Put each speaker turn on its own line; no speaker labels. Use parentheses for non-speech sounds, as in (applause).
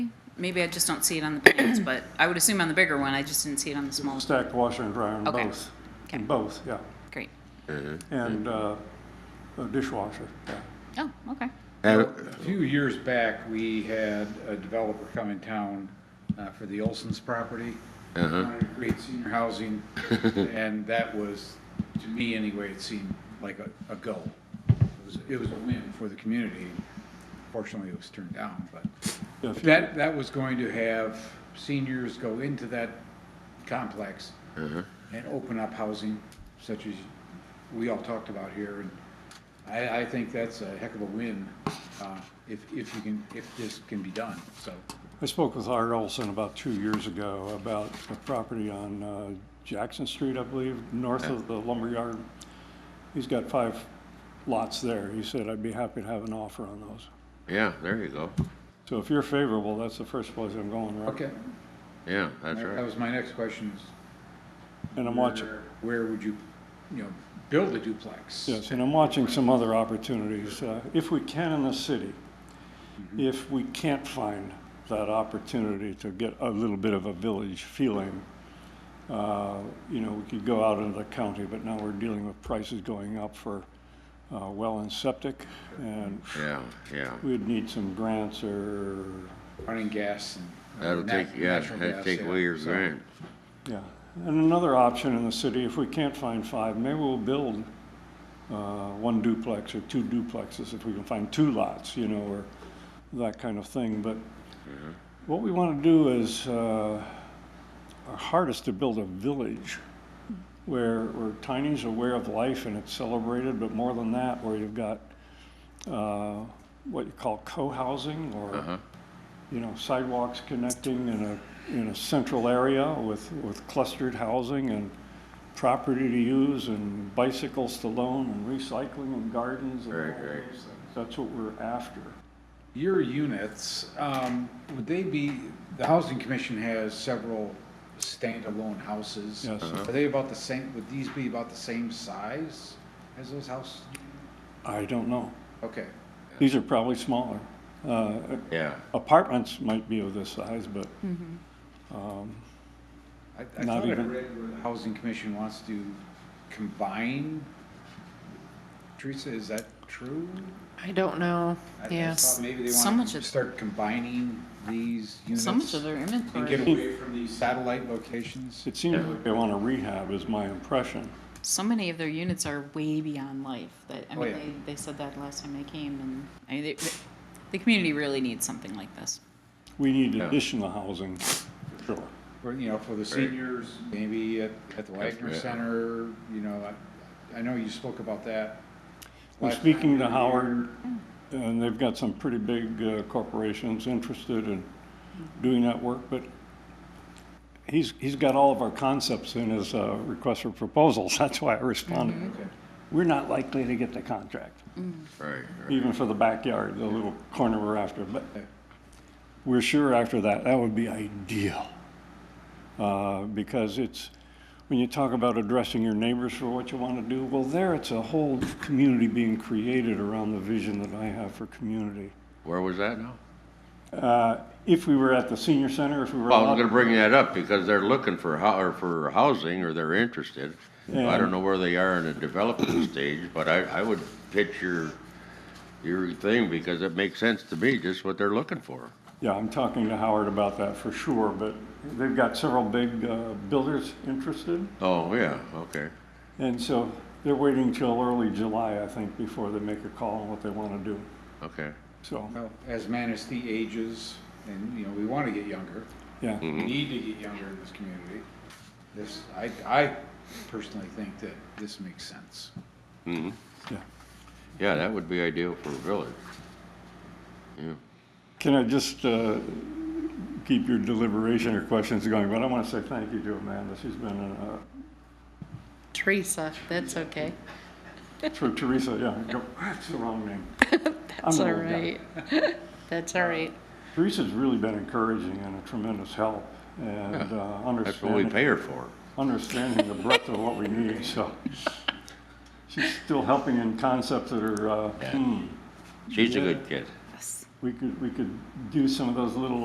maybe I just don't see it on the big ones, but I would assume on the bigger one, I just didn't see it on the small. one.
Stacked washer and dryer in
Okay.
both.
Okay. Hmm.
In both, yeah.
Great.
And uh, a dishwasher, yeah.
Oh, okay.
And
A few years back, we had a developer come in town uh, for the Olson's property. Wanted to create senior housing, and that was, to me anyway, it seemed like a, a go. It was, it was a win for the community. Fortunately, it was turned down, but
Yeah, if you-
that, that was going to have seniors go into that complex and open up housing such as we all talked about here. And I, I think that's a heck of a win, uh, if, if you can, if this can be done, so.
I spoke with Art Olson about two years ago about a property on uh, Jackson Street, I believe, north of the lumberyard. He's got five lots there. He said, I'd be happy to have an offer on those.
yeah, there you go.
So if you're favorable, that's the first place I'm going, right?
Okay,
Yeah, that's
that
right.
was my next question is.
And I'm watching,
where- Where would you, you know, build a duplex?
yes, and I'm watching some other opportunities. Uh, If we can in the city, if we can't find that opportunity to get a little bit of a village feeling, uh, you know, we could go out into the county, but now we're dealing with prices going up for uh, well and septic, and
Yeah, yeah.
we'd need some grants or,
Running gas and. uh,
That'll
nat-
take, yeah,
natural
that'll
gas,
take
yeah,
away your
so.
grant.
yeah. And another option in the city, if we can't find five, maybe we'll build uh, one duplex or two duplexes if we can find two lots, you know, or that kind of thing. But what we want to do is, uh, our heart is to build a village where, where tiny's aware of life and it's celebrated, but more than that, where you've got uh, what you call co-housing or, you know, sidewalks connecting in a, in a central area with, with clustered housing and property to use and bicycles to loan and recycling and gardens and all
Right,
those
right.
things. That's what we're after.
Your units, um, would they be, the Housing Commission has several standalone houses.
Yes. Uh-huh.
Are they about the same, would these be about the same size as those houses?
I don't know.
Okay,
These are probably smaller. Uh,
Yeah,
Apartments might be of this size, but
I, I
Not
thought I
even-
read where the Housing Commission wants to combine. Teresa, is that true?
I don't know,
I- I
yes.
thought Maybe they
So
want
much
to
of-
start combining these units.
So much of their
And get
inventory,
away from these satellite locations.
it seems like they want to rehab is my impression.
so many of their units are way beyond life that, I
Oh,
mean,
yeah.
they, they said that last time I came and, I mean, they- the community really needs something like this.
We need
Yeah.
additional housing, for sure.
for, you know, for the seniors, maybe at, at the Wagner
Yeah.
Center, you know, I, I know you spoke about that.
I'm
last
speaking to
time.
Howard, and they've got some pretty big uh, corporations interested in doing that work, but he's, he's got all of our concepts in his uh, request for proposals. (laughs) That's why I responded.
Okay.
We're not likely to get the contract,
right, right.
even for the backyard, the little corner we're after, but we're sure after that, that would be ideal. Uh, Because it's, when you talk about addressing your neighbors for what you want to do, well, there it's a whole community being created around the vision that I have for community.
Where was that now?
Uh, If we were at the senior center, if we were.
Well, I'm
allowed-
gonna bring that up because they're looking for hou- or for housing or they're interested. I
And-
don't know where they are in the development (clears throat) stage, but I, I would pitch your, your thing because it makes sense to me, just what they're looking for.
Yeah, I'm talking to Howard about that for sure, but they've got several big uh, builders interested.
Oh, yeah, okay.
And so they're waiting till early July, I think, before they make a call on what they want to do.
Okay,
So,
Well, as Manistee ages, and, you know, we want to get younger,
yeah.
we
Mm-hmm.
need to get younger in this community. This, I, I personally think that this makes sense.
yeah.
yeah, that would be ideal for a village. Yeah,
Can I just uh, keep your deliberation or questions going, but I want to say thank you to Amanda. She's
(laughs)
been, uh,
Teresa, that's okay.
Oh,
for Teresa, yeah, go- that's the wrong name.
(laughs) That's
I'm
all
an old guy.
right. (laughs) That's all right.
Teresa's really been encouraging and a tremendous help and uh,
that's what we
understanding,
pay her for.
understanding the breadth of what we need, so. She's still helping in concepts that are, uh,
Yeah.
hmm,
She's a good kid.
we could, we could do some of those little